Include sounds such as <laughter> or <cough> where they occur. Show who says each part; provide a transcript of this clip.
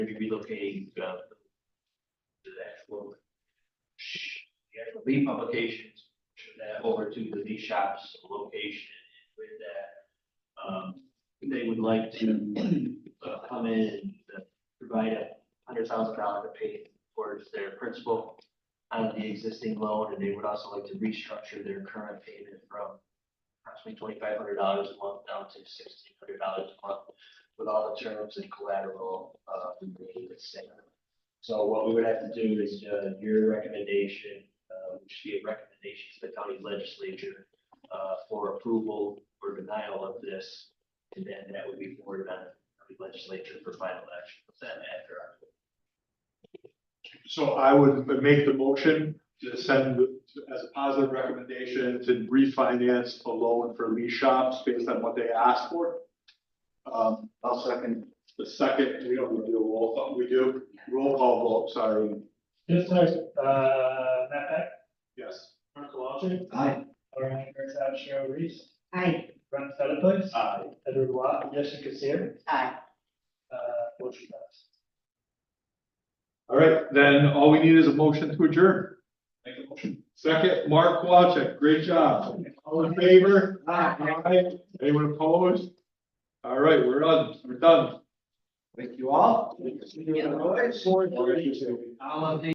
Speaker 1: maybe relocating, uh, to the actual, the actual lead publications, turn that over to the lead shops location and with that. Um, they would like to, <clears throat> uh, come in and uh, provide a hundred thousand dollar to pay towards their principal on the existing loan, and they would also like to restructure their current payment from approximately twenty-five hundred dollars a month down to sixteen hundred dollars a month with all the terms and collateral, uh, remaining the same. So what we would have to do is, uh, your recommendation, uh, which should be a recommendation to the county legislature, uh, for approval or denial of this. And then that would be forwarded on to the legislature for final action, then after our
Speaker 2: So I would make the motion to send as a positive recommendation to refinance the loan for Lee Shops based on what they asked for. Um, I'll second. The second, we don't do a roll, call. we do roll call vote, sorry,
Speaker 3: Just like, uh, Matt Beck,
Speaker 2: yes.
Speaker 3: Mark Waltrip,
Speaker 2: Aye.
Speaker 3: Lauren Herzog, Cheryl Reese,
Speaker 4: Aye.
Speaker 3: Ron Sutherland,
Speaker 2: Aye.
Speaker 3: Edward Waugh, Jessica Seer,
Speaker 4: Aye.
Speaker 3: uh, motion passed.
Speaker 2: All right, then all we need is a motion to adjourn. Make a motion. Second, Mark Walchek, great job. All in favor? Aye. Anyone opposed? All right, we're done, we're done. Thank you all.
Speaker 4: Yeah.
Speaker 1: All of the